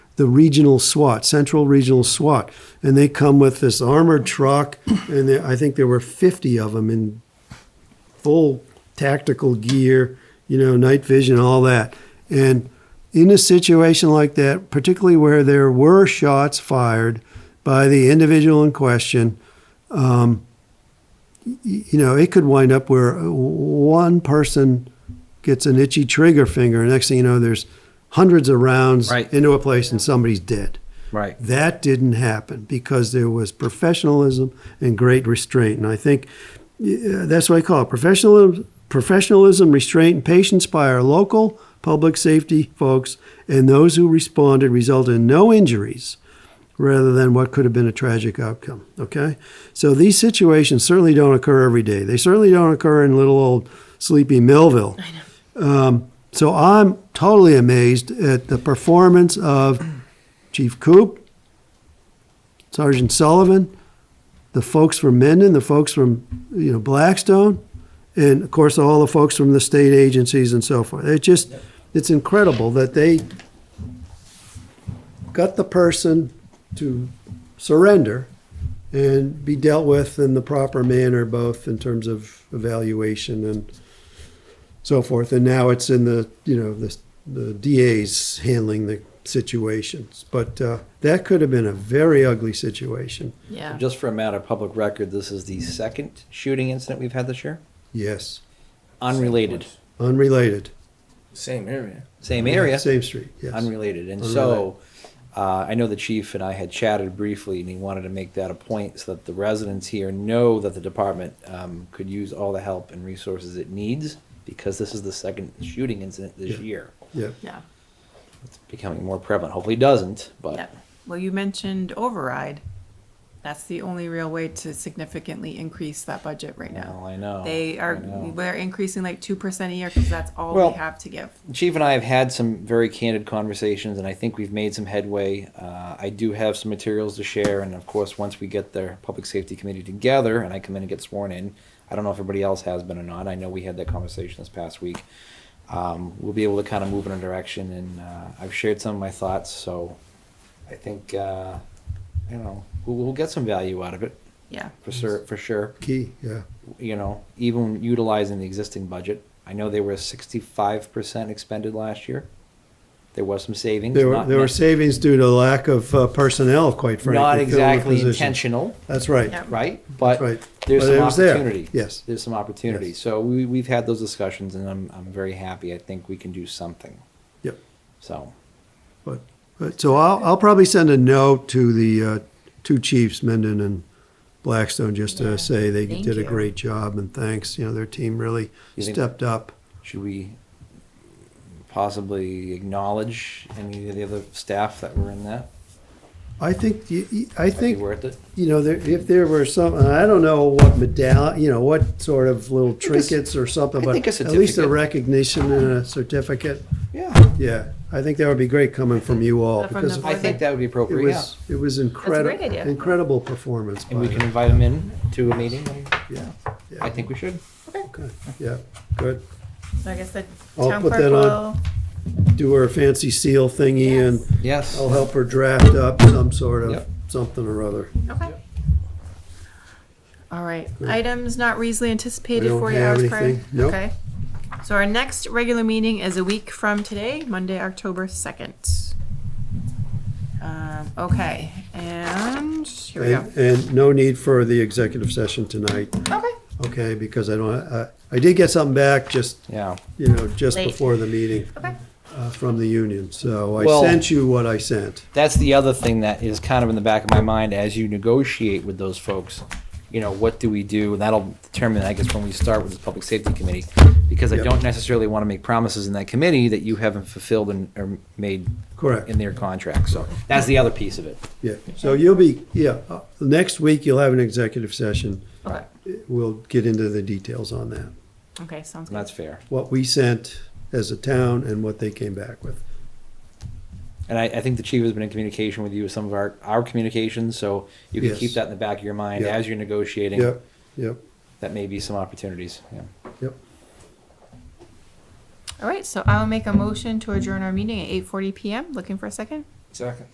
the regional SWAT, Central Regional SWAT, and they come with this armored truck, and there- I think there were 50 of them in full tactical gear, you know, night vision, all that. And in a situation like that, particularly where there were shots fired by the individual in question, um, y- you know, it could wind up where uh, one person gets an itchy trigger finger. Next thing you know, there's hundreds of rounds Right. into a place and somebody's dead. Right. That didn't happen because there was professionalism and great restraint. And I think yeah, that's what I call it professionalism, professionalism, restraint, and patience by our local public safety folks. And those who responded resulted in no injuries rather than what could have been a tragic outcome. Okay? So these situations certainly don't occur every day. They certainly don't occur in little old sleepy Millville. I know. Um, so I'm totally amazed at the performance of Chief Coop, Sergeant Sullivan, the folks from Mendon, the folks from you know Blackstone, and of course all the folks from the state agencies and so forth. It just it's incredible that they got the person to surrender and be dealt with in the proper manner, both in terms of evaluation and so forth. And now it's in the you know the the DA's handling the situations, but uh, that could have been a very ugly situation. Yeah. Just for a matter of public record, this is the second shooting incident we've had this year. Yes, Unrelated, unrelated. Same area. same area, same street. Yes, unrelated. And so, uh, I know the chief and I had chatted briefly, and he wanted to make that a point so that the residents here know that the department um, could use all the help and resources it needs because this is the second shooting incident this year. Yeah. Yeah. It's becoming more prevalent. Hopefully, it doesn't, but Yeah. Well, you mentioned override. That's the only real way to significantly increase that budget right Well, now. I know. They I are, know. we're increasing like 2% a year because that's all Well- we have to give. Chief and I have had some very candid conversations, and I think we've made some headway. Uh, I do have some materials to share, and of course, once we get the Public Safety Committee together and I come in and get sworn in, I don't know if everybody else has been or not. I know we had that conversation this past week. Um, we'll be able to kind of move in a direction, and uh, I've shared some of my thoughts, so I think, uh, you know, we'll, we'll get some value out of it Yeah. for sure. For sure Key. Yeah. you know, even utilizing the existing budget. I know they were sixty-five percent expended last year. There was some savings. There were not there were nec- savings due to lack of uh, personnel, quite frankly. Not filling the exactly positions. intentional, That's right. Yeah. right? But right. there's But it some was there. opportunity. Yes. There's some opportunity. Yes. So we, we've had those discussions and I'm, I'm very happy. I think we can do something. Yep. So, But, but so I'll I'll probably send a note to the uh, two chiefs, Mendon and Blackstone, just to Yeah. say they Thank did a you. great job and thanks. You know, their team really You think- stepped up. should we possibly acknowledge any of the other staff that were in that? I think y- y- I Might be think worth it? you know there, if there were some and I don't know what medallion you know what sort of little think it's- trinkets or something I but think a at least a certificate. recognition and a certificate Yeah, Yeah, I think that would be great coming from you all From the because it I think that would be appropriate, yeah. was, it was incredible, idea. incredible performance by And we can them. invite them in to a meeting and Yeah, I yeah, think we should. good, yeah, good. Like I said, I'll town put clerk that will, on. Do her fancy seal thingy and Yes. I'll help her draft up some sort of, Yep. something or other. okay. All right, items not reasonably anticipated We don't 40 have hours prior. anything. Nope. Okay. So our next regular meeting is a week from today, Monday, October 2nd. Um, okay, and here we go. And, and no need for the executive session tonight, Okay. okay, because I don't, I, I did get something back just, Yeah. you know, just Late. before the meeting. Okay. Uh, from the union, so I Well- sent you what I sent. That's the other thing that is kind of in the back of my mind as you negotiate with those folks. You know, what do we do? And that'll determine, I guess, when we start with this public safety committee. Because I Yep. don't necessarily want to make promises in that committee that you haven't fulfilled and or made Correct. in their contract. So that's the other piece of it. Yeah, so you'll be, yeah, uh, next week you'll have an executive session. Okay. We'll get into the details on that, Okay, sounds And good. that's fair. what we sent as a town and what they came back with. And I, I think the chief has been in communication with you with some of our, our communications, so you can Yes. keep that in the back of your mind Yeah. as you're negotiating. Yep, yep, That may be some opportunities. Yeah. yep. All right, so I'll make a motion to adjourn our meeting at 8:40 PM. Looking for a second? Second.